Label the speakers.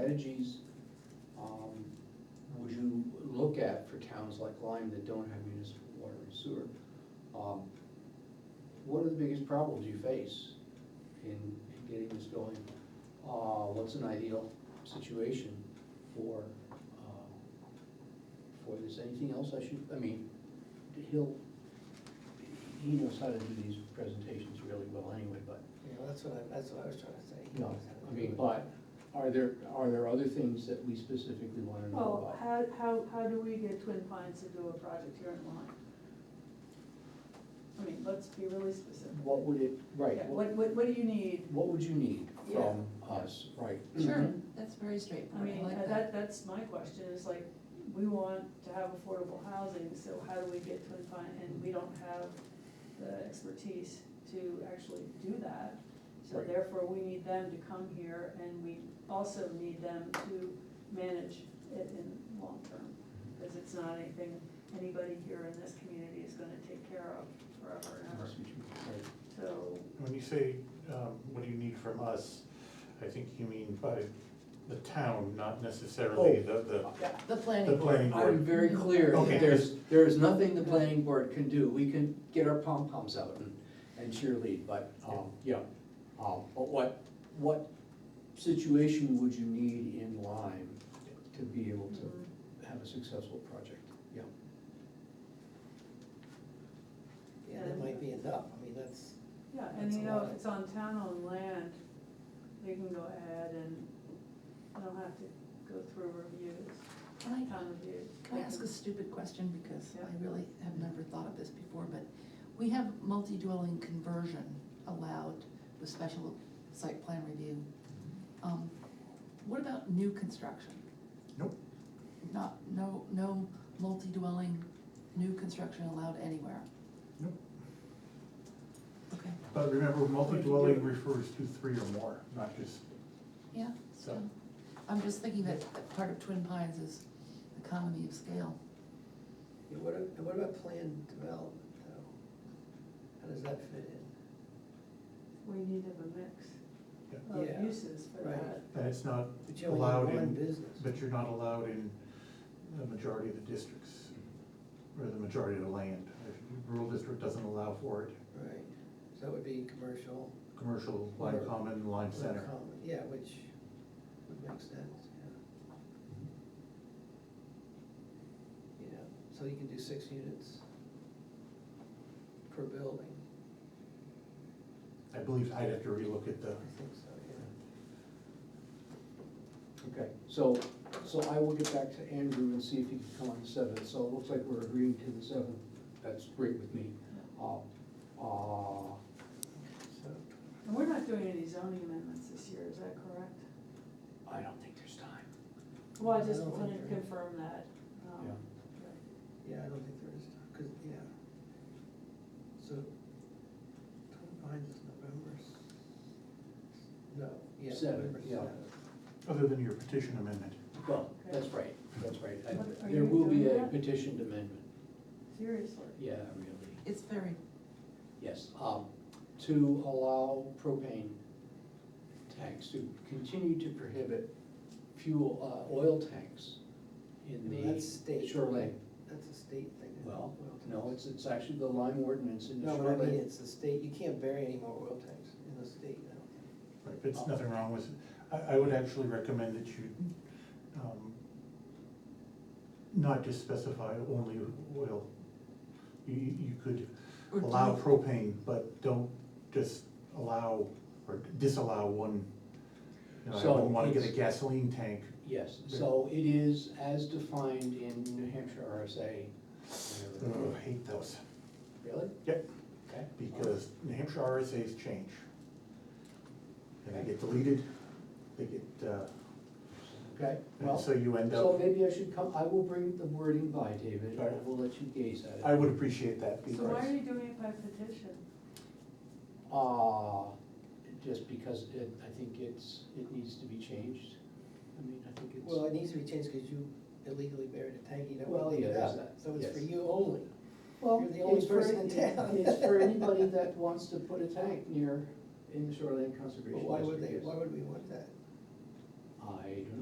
Speaker 1: strategies um, would you look at for towns like Lyme that don't have municipal water and sewer? Um, What are the biggest problems you face in in getting this going? Uh, What's an ideal situation for, uh, for this? Anything else I should, I mean, he'll, he knows how to do these presentations really well anyway, but
Speaker 2: Yeah, that's what I, that's what I was trying to say.
Speaker 1: no, I mean, but are there, are there other things that we specifically wanna know
Speaker 3: Well,
Speaker 1: about?
Speaker 3: how, how, how do we get Twin Pines to do a project here in Lyme? I mean, let's be really specific.
Speaker 1: What would it, right,
Speaker 3: Yeah,
Speaker 1: what,
Speaker 3: What, what, what do you need?
Speaker 1: what would you need from us, right?
Speaker 4: Sure,
Speaker 1: Mhm.
Speaker 4: that's very
Speaker 3: I
Speaker 4: straightforward, Mm-hmm. I uh,
Speaker 3: mean,
Speaker 4: like
Speaker 3: that,
Speaker 4: that.
Speaker 3: that's my question, is like, we want to have affordable housing, so how do we get Twin Pine, and we don't have the expertise to actually do that. So
Speaker 1: Right.
Speaker 3: therefore, we need them to come here, and we also need them to manage it in long term. Because it's not anything anybody here in this community is gonna take care of forever and ever,
Speaker 1: That's what you- right.
Speaker 3: so.
Speaker 5: When you say, um, what do you need from us, I think you mean by the town, not necessarily the, the,
Speaker 4: The
Speaker 5: the
Speaker 4: planning board,
Speaker 5: Oh. planning
Speaker 1: I'm
Speaker 5: board.
Speaker 1: very clear
Speaker 5: Okay.
Speaker 1: that there's, there is nothing the planning board can do. We can get our pom-poms out and, and cheerlead, but, um, yeah. Um, but what, what situation would you need in Lyme to be able to have a successful project? Yeah.
Speaker 2: Yeah, that might be enough, I mean, that's,
Speaker 3: Yeah, and
Speaker 2: That's
Speaker 3: you
Speaker 2: a
Speaker 3: know,
Speaker 2: lot.
Speaker 3: if it's on town-owned land, they can go ahead and I don't have to go through reviews,
Speaker 4: can I,
Speaker 3: town reviews.
Speaker 4: can I ask a stupid question, because
Speaker 3: Yeah.
Speaker 4: I really have never thought of this before, but we have multi-dwelling conversion allowed with special site plan review. Um, What about new construction?
Speaker 5: Nope.
Speaker 4: Not, no, no multi-dwelling, new construction allowed anywhere?
Speaker 5: Nope.
Speaker 4: Okay,
Speaker 5: But remember, multi-dwelling refers to three or more, not just,
Speaker 4: yeah, so, I'm just thinking that that part of Twin Pines is economy of scale.
Speaker 2: yeah, what, a- and what about planned development though? How does that fit in?
Speaker 3: We need to have a mix
Speaker 2: Yeah.
Speaker 3: of uses for
Speaker 2: Right.
Speaker 3: that.
Speaker 5: and it's not
Speaker 2: But you only
Speaker 5: allowed
Speaker 2: need one
Speaker 5: in,
Speaker 2: business.
Speaker 5: but you're not allowed in the majority of the districts, or the majority of the land. Rural district doesn't allow for it,
Speaker 2: Right, so that would be commercial.
Speaker 5: commercial, line
Speaker 2: Or-
Speaker 5: common, line center.
Speaker 2: common, Yeah, which would make sense, yeah. Yeah, so you can do six units per building,
Speaker 5: I believe I'd have to relook at the,
Speaker 2: I think so, yeah.
Speaker 1: Okay, so, so I will get back to Andrew and see if he can come on the seventh, so it looks like we're agreeing to the seventh, that's great with me. Uh, uh,
Speaker 2: So,
Speaker 3: And we're not doing any zoning amendments this year, is that correct?
Speaker 1: I don't think there's time.
Speaker 3: Well, I
Speaker 2: I
Speaker 3: just
Speaker 2: don't think
Speaker 3: wanted to
Speaker 2: there-
Speaker 3: confirm that. um,
Speaker 1: Yeah.
Speaker 3: right.
Speaker 2: yeah, I don't think there is, because, yeah. So, twenty-nine is November. s- No, yeah.
Speaker 1: Seven,
Speaker 2: November
Speaker 1: yeah.
Speaker 2: seventh.
Speaker 5: other than your petition amendment.
Speaker 1: Well, that's right, that's right. I-
Speaker 3: What- are
Speaker 1: There
Speaker 3: you
Speaker 1: will be
Speaker 3: doing
Speaker 1: a
Speaker 3: that?
Speaker 1: petitioned amendment,
Speaker 3: Seriously.
Speaker 1: yeah, really,
Speaker 4: It's very
Speaker 1: yes. Um, To allow propane tanks to continue to prohibit fuel, uh, oil tanks in
Speaker 2: Well, that's
Speaker 1: the
Speaker 2: state.
Speaker 1: shoreline.
Speaker 2: That's a state thing. I think,
Speaker 1: Well,
Speaker 2: oil
Speaker 1: no,
Speaker 2: tanks.
Speaker 1: it's, it's actually the Lyme ordinance in the
Speaker 2: No, but I
Speaker 1: shoreline.
Speaker 2: mean, it's the state, you can't bury any more oil tanks in the state now.
Speaker 5: Right, but it's nothing wrong with, I, I would actually recommend that you, um, not just specify only oil. You, you you could
Speaker 4: Or do
Speaker 5: allow
Speaker 4: you-
Speaker 5: propane, but don't just allow or disallow one. You know, I
Speaker 1: So
Speaker 5: wouldn't wanna get a
Speaker 1: it's-
Speaker 5: gasoline tank,
Speaker 1: Yes, so it is as defined in New Hampshire RSA.
Speaker 5: Ugh,
Speaker 1: whatever.
Speaker 5: I hate those,
Speaker 1: Really?
Speaker 5: Mm-hmm. Yep.
Speaker 1: Okay.
Speaker 5: because New Hampshire RSA's change. And they get deleted, they get, uh,
Speaker 1: Okay,
Speaker 5: and
Speaker 1: well,
Speaker 5: so you end
Speaker 1: so
Speaker 5: up,
Speaker 1: maybe I should come, I will bring the wording by, David,
Speaker 5: All
Speaker 1: and
Speaker 5: right.
Speaker 1: we'll let you gaze at it.
Speaker 5: I would appreciate that because.
Speaker 3: So why are you doing it by petition?
Speaker 1: Uh, just because it, I think it's, it needs to be changed. I mean, I think it's.
Speaker 2: Well, it needs to be changed because you illegally buried a tank, you
Speaker 1: Well,
Speaker 2: don't leave
Speaker 1: yeah,
Speaker 2: it
Speaker 1: there's
Speaker 2: up,
Speaker 1: that,
Speaker 2: so it's for
Speaker 1: yes.
Speaker 2: you only.
Speaker 1: Well,
Speaker 2: You're the only
Speaker 1: it's for-
Speaker 2: person in town.
Speaker 1: It's for anybody that wants to put a tank near, in the shoreline
Speaker 2: But
Speaker 1: conservation district.
Speaker 2: why would they,
Speaker 1: yes.
Speaker 2: why would we want that?
Speaker 1: I don't